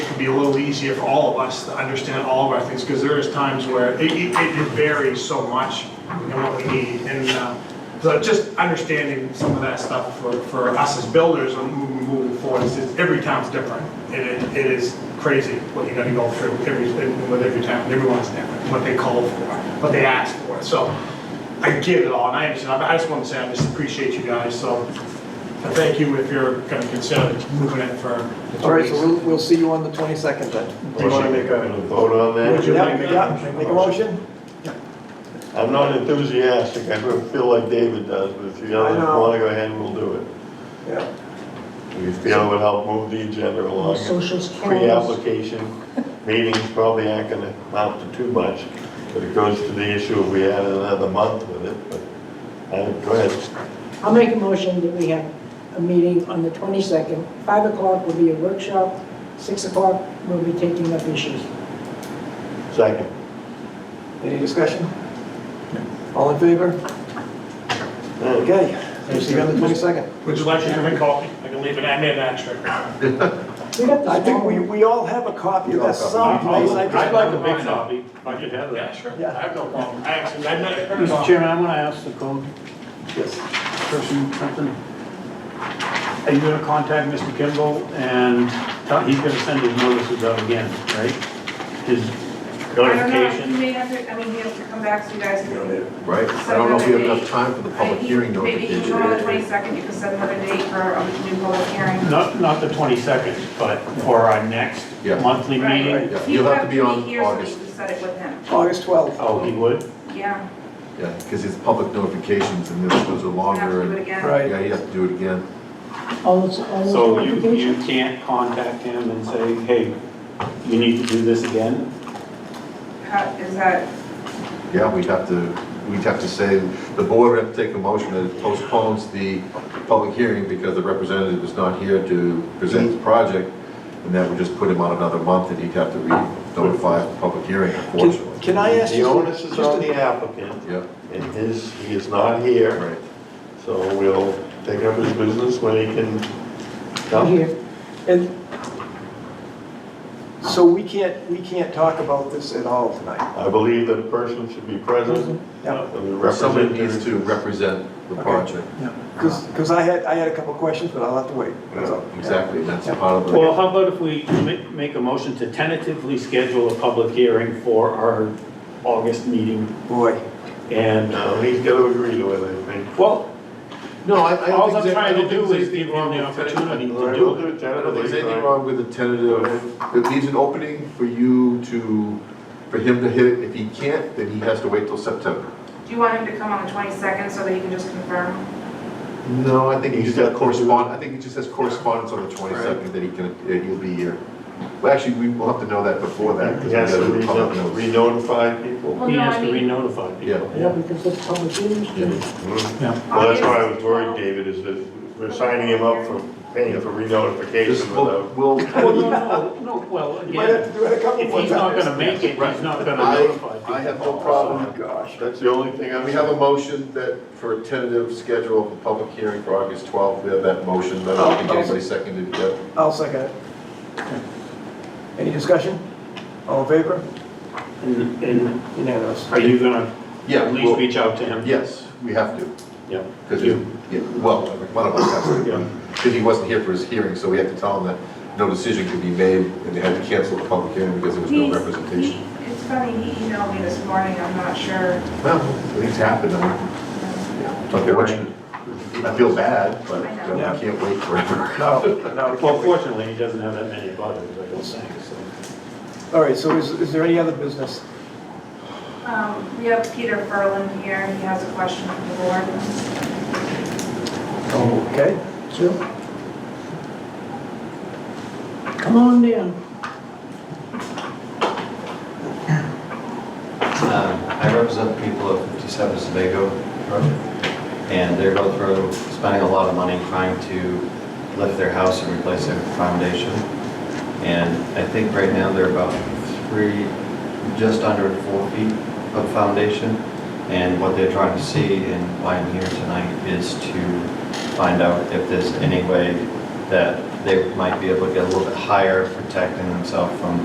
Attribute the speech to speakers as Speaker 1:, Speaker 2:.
Speaker 1: be a little easier for all of us to understand all of our things, because there is times where it, it it varies so much in what we need. And, uh, so just understanding some of that stuff for, for us as builders and moving, moving forward, is just every town's different. It, is- it is crazy what you gotta go through every, with every town, everyone's different, what they call for, what they ask for. So I get it all, and I understand, I just want to say I just appreciate you guys, so I thank you if you're gonna consider moving it for. the two
Speaker 2: All right,
Speaker 1: weeks.
Speaker 2: so we'll, we'll see you on the 22nd then.
Speaker 1: Do you wanna make a?
Speaker 3: Vote on
Speaker 1: Would you like
Speaker 3: that?
Speaker 2: Yeah,
Speaker 1: that?
Speaker 2: yeah, make a motion?
Speaker 3: I'm not enthusiastic, I don't feel like David does, but if you
Speaker 2: I know.
Speaker 3: want to go ahead, we'll do it.
Speaker 2: Yeah.
Speaker 3: We feel it would help move the agenda along.
Speaker 4: Socials closed.
Speaker 3: Pre-application meetings probably aren't going to amount to too much, but it goes to the issue if we had another month with it, but, uh, go ahead.
Speaker 4: I'll make a motion that we have a meeting on the 22nd. 5 o'clock will be a workshop, 6 o'clock we'll be taking up issues.
Speaker 3: Second.
Speaker 2: Any discussion? All in favor? Okay, we'll see you on the 22nd.
Speaker 1: Would you like to drink coffee? I can leave it, I made an extra.
Speaker 4: We got
Speaker 2: I
Speaker 4: the
Speaker 2: think we,
Speaker 4: small,
Speaker 2: we all have a copy of that someplace. I just-
Speaker 1: I'd like a big copy.
Speaker 3: I could have
Speaker 1: Yeah, sure,
Speaker 2: Yeah.
Speaker 1: I have no problem, I actually, I've never heard of
Speaker 5: Mr.
Speaker 1: it.
Speaker 5: Chairman, I want to ask the code
Speaker 2: Yes.
Speaker 5: person something. Are you going to contact Mr. Kimball and tell- he's going to send his notices out again, right? His
Speaker 6: I don't know, he
Speaker 5: notification?
Speaker 6: may have to, I mean, he has to come back to you guys.
Speaker 7: Right, I don't know if we have enough time for the public hearing
Speaker 6: Maybe you can go on the
Speaker 7: notification.
Speaker 6: twenty-second, you can set another date for a new public hearing.
Speaker 5: Not, not the 22nd, but for our next
Speaker 7: Yeah.
Speaker 5: monthly
Speaker 6: Right.
Speaker 5: meeting?
Speaker 7: yeah.
Speaker 6: He
Speaker 7: You'll
Speaker 6: would
Speaker 7: have to be on
Speaker 6: here so that
Speaker 7: August.
Speaker 6: you can set it with him,
Speaker 2: August 12th.
Speaker 5: Oh, he would?
Speaker 6: yeah.
Speaker 7: Yeah, because it's public notifications and this was a
Speaker 6: You have
Speaker 7: longer,
Speaker 6: to do it
Speaker 7: and-
Speaker 6: again.
Speaker 2: Right.
Speaker 7: yeah, you have to do it again.
Speaker 4: all those, all those
Speaker 5: So you, you
Speaker 4: applications.
Speaker 5: can't contact him and say, hey, you need to do this again?
Speaker 6: How, is that,
Speaker 7: Yeah, we'd have to, we'd have to say, the board would have to take a motion that it postpones the public hearing because the representative is not here to present the project, and that would just put him on another month, and he'd have to re-notify the public hearing,
Speaker 2: Can-
Speaker 7: unfortunately.
Speaker 2: Can I ask
Speaker 3: The
Speaker 2: you?
Speaker 3: onus is
Speaker 2: just a-
Speaker 3: on the applicant,
Speaker 7: Yeah,
Speaker 3: and his, he is not here,
Speaker 7: right.
Speaker 3: so we'll take up his business when he can come.
Speaker 4: Here.
Speaker 2: And so we can't, we can't talk about this at all tonight.
Speaker 3: I believe that a person should be present.
Speaker 7: Mhm.
Speaker 2: Yeah.
Speaker 7: Somebody needs to represent the
Speaker 2: Okay.
Speaker 7: project.
Speaker 2: Because, I had, I had a couple of questions, but I'll have to wait. That's all.
Speaker 7: Exactly, that's part of the.
Speaker 5: Well, how about if we ma- make a motion to tentatively schedule a public hearing for our August meeting?
Speaker 2: Boy,
Speaker 5: And,
Speaker 3: No, he's got uh, to agree to it, I think.
Speaker 5: well,
Speaker 7: No, I, I
Speaker 5: all
Speaker 7: don't
Speaker 5: I'm
Speaker 7: think.
Speaker 5: trying to do is
Speaker 7: the
Speaker 5: give him the opportunity to
Speaker 3: We'll
Speaker 5: do
Speaker 3: do
Speaker 5: it.
Speaker 3: it
Speaker 7: I don't think there's anything
Speaker 3: tentatively.
Speaker 7: wrong with a tentative, it leaves an opening for you to, for him to hit it. If he can't, then he has to wait till September.
Speaker 6: do you want him to come on the twenty-second so that he can just confirm?
Speaker 7: No, I think he
Speaker 3: He's
Speaker 7: just has
Speaker 3: got to do it.
Speaker 7: correspond, I think he just has correspondence on the twenty-second that he can, uh, he'll be here. Well, actually, we will have to know that before that. 'cause we
Speaker 3: He has
Speaker 7: gotta
Speaker 3: to
Speaker 7: do
Speaker 3: re-
Speaker 7: public notice.
Speaker 3: re-notify people.
Speaker 6: Well,
Speaker 5: He
Speaker 6: no,
Speaker 5: has
Speaker 6: I
Speaker 5: to
Speaker 6: mean-
Speaker 5: re-notify people.
Speaker 7: Yeah.
Speaker 4: Yeah, because it's public hearings.
Speaker 7: Yeah.
Speaker 3: Well, that's why I was worried, David, is that we're signing him up for paying for
Speaker 7: Just,
Speaker 3: re-notification
Speaker 7: we'll,
Speaker 3: without.
Speaker 7: we'll,
Speaker 5: Well, no, no, no, well,
Speaker 2: you might have
Speaker 5: again,
Speaker 2: to do it a couple
Speaker 5: if
Speaker 2: more
Speaker 5: he's not
Speaker 2: times.
Speaker 5: gonna make it, he's not gonna notify
Speaker 7: I,
Speaker 5: people.
Speaker 7: I have no
Speaker 2: Oh,
Speaker 7: problem
Speaker 2: my gosh.
Speaker 3: That's the only thing I'm.
Speaker 7: We have a motion that, for a tentative schedule of a public hearing for August 12th, we have that motion, but I don't think
Speaker 5: Oh,
Speaker 7: anybody seconded yet.
Speaker 2: I'll second it. Any discussion? All in favor?
Speaker 5: And, and
Speaker 2: Unanimous.
Speaker 5: are you gonna
Speaker 7: Yeah,
Speaker 5: at least
Speaker 7: well,
Speaker 5: reach out to him?
Speaker 7: yes, we have to,
Speaker 5: Yeah.
Speaker 7: because,
Speaker 5: You.
Speaker 7: well, one of us has to, because he wasn't here for his hearing, so we had to tell him that no decision could be made, and they had to cancel the public hearing because there was no
Speaker 6: He's-
Speaker 7: representation.
Speaker 6: he- It's funny, he emailed me this morning, I'm not sure.
Speaker 7: Well, things happen, I mean, yeah, it's unfortunate. I feel bad, but
Speaker 6: I
Speaker 7: uh,
Speaker 6: know.
Speaker 7: I can't wait forever.
Speaker 2: No, no.
Speaker 5: Well, fortunately, he doesn't have that many buttons, I don't think, so.
Speaker 2: All right, so is, is there any other business?
Speaker 6: Um, we have Peter Ferland here, he has a question from the board.
Speaker 2: Okay.
Speaker 4: Come on down.
Speaker 8: Um, I represent the people of 57 Sebago Road, and they're both road spending a lot of money trying to lift their house and replace their foundation. And I think right now they're about three, just under four feet of foundation. And what they're trying to see and why I'm here tonight is to find out if there's any way that they might be able to get a little bit higher, protecting themselves from